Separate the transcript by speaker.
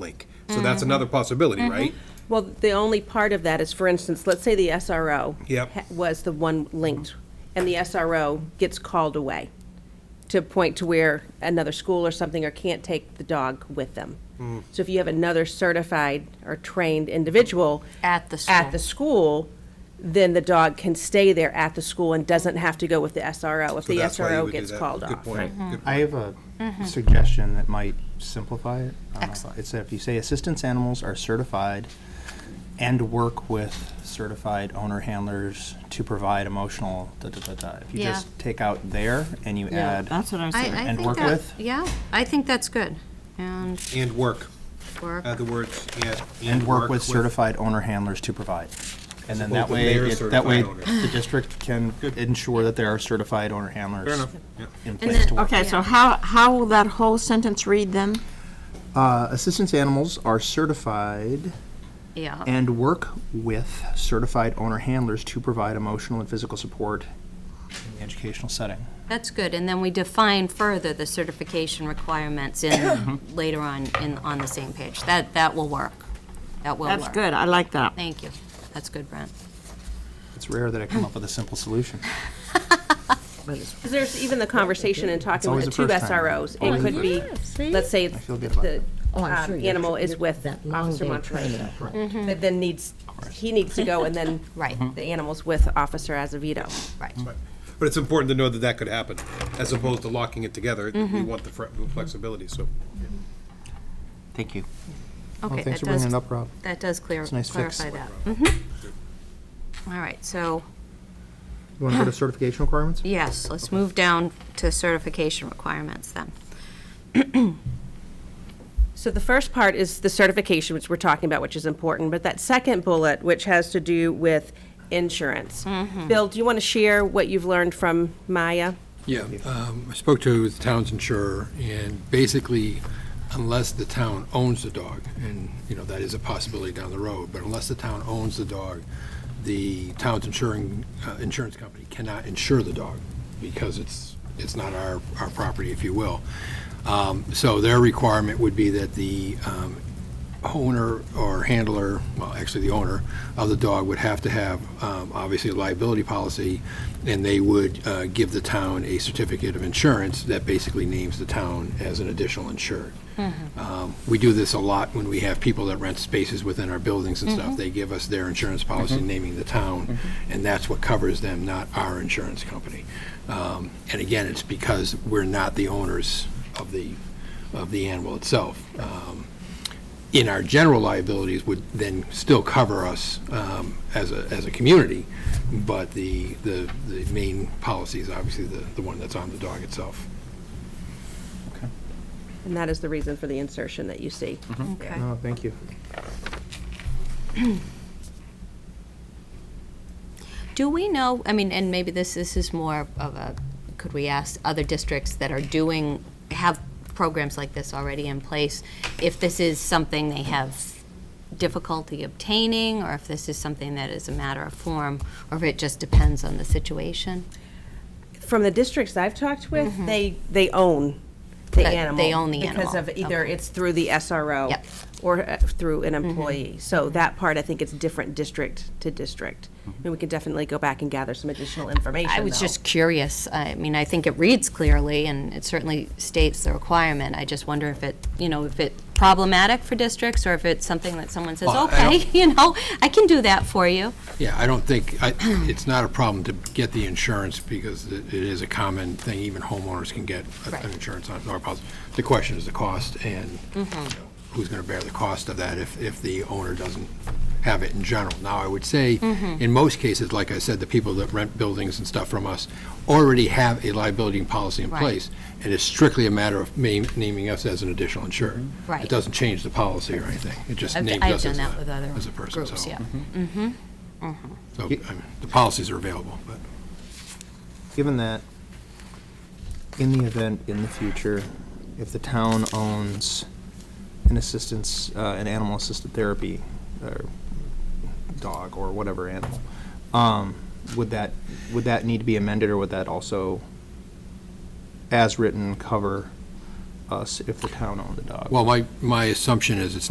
Speaker 1: link. So that's another possibility,
Speaker 2: Mm-hmm.
Speaker 1: right?
Speaker 2: Well, the only part of that is, for instance, let's say the SRO
Speaker 1: Yep.
Speaker 2: ha- was the one linked, and the SRO gets called away to a point to where another school or something or can't take the dog with them.
Speaker 1: Hmm.
Speaker 2: So if you have another certified or trained individual
Speaker 3: At the
Speaker 2: at the school, then the dog can stay there at the school and doesn't have to go with the SRO if
Speaker 1: So
Speaker 2: the
Speaker 1: that's why you
Speaker 2: SRO
Speaker 1: would do
Speaker 2: gets
Speaker 1: that.
Speaker 2: called
Speaker 1: Good
Speaker 2: off.
Speaker 1: point, good
Speaker 4: I
Speaker 1: point.
Speaker 4: have a suggestion that might simplify it. Uh,
Speaker 3: Mm-hmm. Excellent.
Speaker 4: It's that if you say assistance animals are certified and work with certified owner handlers to provide emotional da da da da. If you
Speaker 3: Yeah.
Speaker 4: just take out there and you
Speaker 5: Yeah,
Speaker 4: add.
Speaker 5: that's what I'm
Speaker 3: I, I
Speaker 5: saying.
Speaker 4: And
Speaker 3: think
Speaker 4: work
Speaker 3: that-
Speaker 4: with?
Speaker 3: Yeah, I think that's good. And
Speaker 1: And work,
Speaker 3: work.
Speaker 1: add the words, and.
Speaker 4: And work with certified owner handlers to provide. And then
Speaker 1: opposed
Speaker 4: that
Speaker 1: to
Speaker 4: way,
Speaker 1: their
Speaker 4: it- that way,
Speaker 1: certified owners.
Speaker 4: the district can ensure that there are certified owner handlers.
Speaker 1: Fair enough, yeah.
Speaker 4: In place to work.
Speaker 5: Okay, so how, how will that whole sentence read then?
Speaker 4: Uh, Assistance animals are certified
Speaker 3: Yeah,
Speaker 4: and work with certified owner handlers to provide emotional and physical support in the educational setting.
Speaker 3: that's good. And then we define further the certification requirements in,
Speaker 4: Mm-hmm.
Speaker 3: later on, in, on the same page. That, that will work. That will work.
Speaker 5: That's good, I like that.
Speaker 3: Thank you. That's good, Brent.
Speaker 4: It's rare that I come up with a simple solution.
Speaker 2: Because there's even the conversation in talking with
Speaker 4: always
Speaker 2: the
Speaker 4: the
Speaker 2: two
Speaker 4: first time.
Speaker 2: SROs. It
Speaker 4: Always the
Speaker 2: could be, let's say it's
Speaker 4: feel good about
Speaker 2: the
Speaker 6: Oh, I'm
Speaker 2: um,
Speaker 6: sure you're-
Speaker 2: animal is with
Speaker 6: that long
Speaker 2: Officer
Speaker 6: day of
Speaker 2: Montrose.
Speaker 6: training.
Speaker 2: That then needs, he needs to go and then.
Speaker 3: Right.
Speaker 2: The animal's with Officer Azavito.
Speaker 3: Right.
Speaker 1: But it's important to know that that could happen, as opposed to locking it together.
Speaker 2: Mm-hmm.
Speaker 1: We want the fre- flexibility, so.
Speaker 4: Thank you.
Speaker 3: Okay,
Speaker 4: Well,
Speaker 3: that
Speaker 4: thanks for bringing
Speaker 3: does,
Speaker 4: it up, Rob.
Speaker 3: that does clear,
Speaker 4: a nice fix.
Speaker 3: clarify that. Mhm. All right, so,
Speaker 4: You want to go to certification requirements?
Speaker 3: yes, let's move down to certification requirements then.
Speaker 2: So the first part is the certification, which we're talking about, which is important. But that second bullet, which has to do with insurance.
Speaker 3: Mm-hmm.
Speaker 2: Bill, do you want to share what you've learned from Maya?
Speaker 7: Yeah, um, I spoke to the town's insurer, and basically, unless the town owns the dog, and, you know, that is a possibility down the road, but unless the town owns the dog, the town's insuring, uh, insurance company cannot insure the dog, because it's, it's not our, our property, if you will. Um, So their requirement would be that the um, owner or handler, well, actually the owner of the dog would have to have, um, obviously, a liability policy, and they would uh, give the town a certificate of insurance that basically names the town as an additional insured. Um, We do this a lot when we have people that rent spaces within our buildings and stuff. They give us their insurance policy naming the town, and that's what covers them, not our insurance company. Um, And again, it's because we're not the owners of the, of the animal itself. Um, in our general liabilities would then still cover us um, as a, as a community, but the, the, the main policy is obviously the, the one that's on the dog itself.
Speaker 2: And that is the reason for the insertion that you see.
Speaker 3: Okay.
Speaker 4: No, thank you.
Speaker 3: Do we know, I mean, and maybe this, this is more of a, could we ask other districts that are doing, have programs like this already in place, if this is something they have difficulty obtaining, or if this is something that is a matter of form, or if it just depends on the situation?
Speaker 2: from the districts I've talked with, they they own the
Speaker 3: That
Speaker 2: animal.
Speaker 3: Mm-hmm. they own the
Speaker 2: because
Speaker 3: animal.
Speaker 2: of either
Speaker 3: Okay.
Speaker 2: it's through the SRO
Speaker 3: Yep. Mm-hmm.
Speaker 2: or uh, through an employee. So that part I think it's different district to district, and we can definitely go back and gather some additional information.
Speaker 3: Mm-hmm. I was
Speaker 2: though.
Speaker 3: just curious. I mean, I think it reads clearly, and it certainly states the requirement. I just wonder if it, you know, if it problematic for districts, or if it's something that someone says,
Speaker 7: Well, I
Speaker 3: okay, you know, I can do that for you.
Speaker 7: Yeah, I don't think, I- it's not a problem to get the insurance because it it is a common thing, even homeowners can get a-
Speaker 3: Right.
Speaker 7: an insurance on dog policy. The question is the cost and you know,
Speaker 3: Mm-hmm.
Speaker 7: who's going to bear the cost of that if, if the owner doesn't have it in general. Now, I would say,
Speaker 3: Mm-hmm.
Speaker 7: in most cases, like I said, the people that rent buildings and stuff from us already have a liability policy in
Speaker 3: Right.
Speaker 7: place. And it's strictly a matter of ma- naming us as an additional insurer.
Speaker 3: Right.
Speaker 7: It doesn't change the policy or anything. It just
Speaker 3: I've-
Speaker 7: names
Speaker 3: I've
Speaker 7: us
Speaker 3: done
Speaker 7: as
Speaker 3: that with
Speaker 7: a,
Speaker 3: other
Speaker 7: as a person,
Speaker 3: groups,
Speaker 7: so.
Speaker 3: yeah.
Speaker 7: So, I mean, the policies are available, but.
Speaker 4: Given that, in the event in the future, if the town owns an assistance, uh, an animal assisted therapy, or dog or whatever animal, um, would that, would that need to be amended or would that also, as written, cover us if the town owned the dog?
Speaker 7: Well, my, my assumption is it's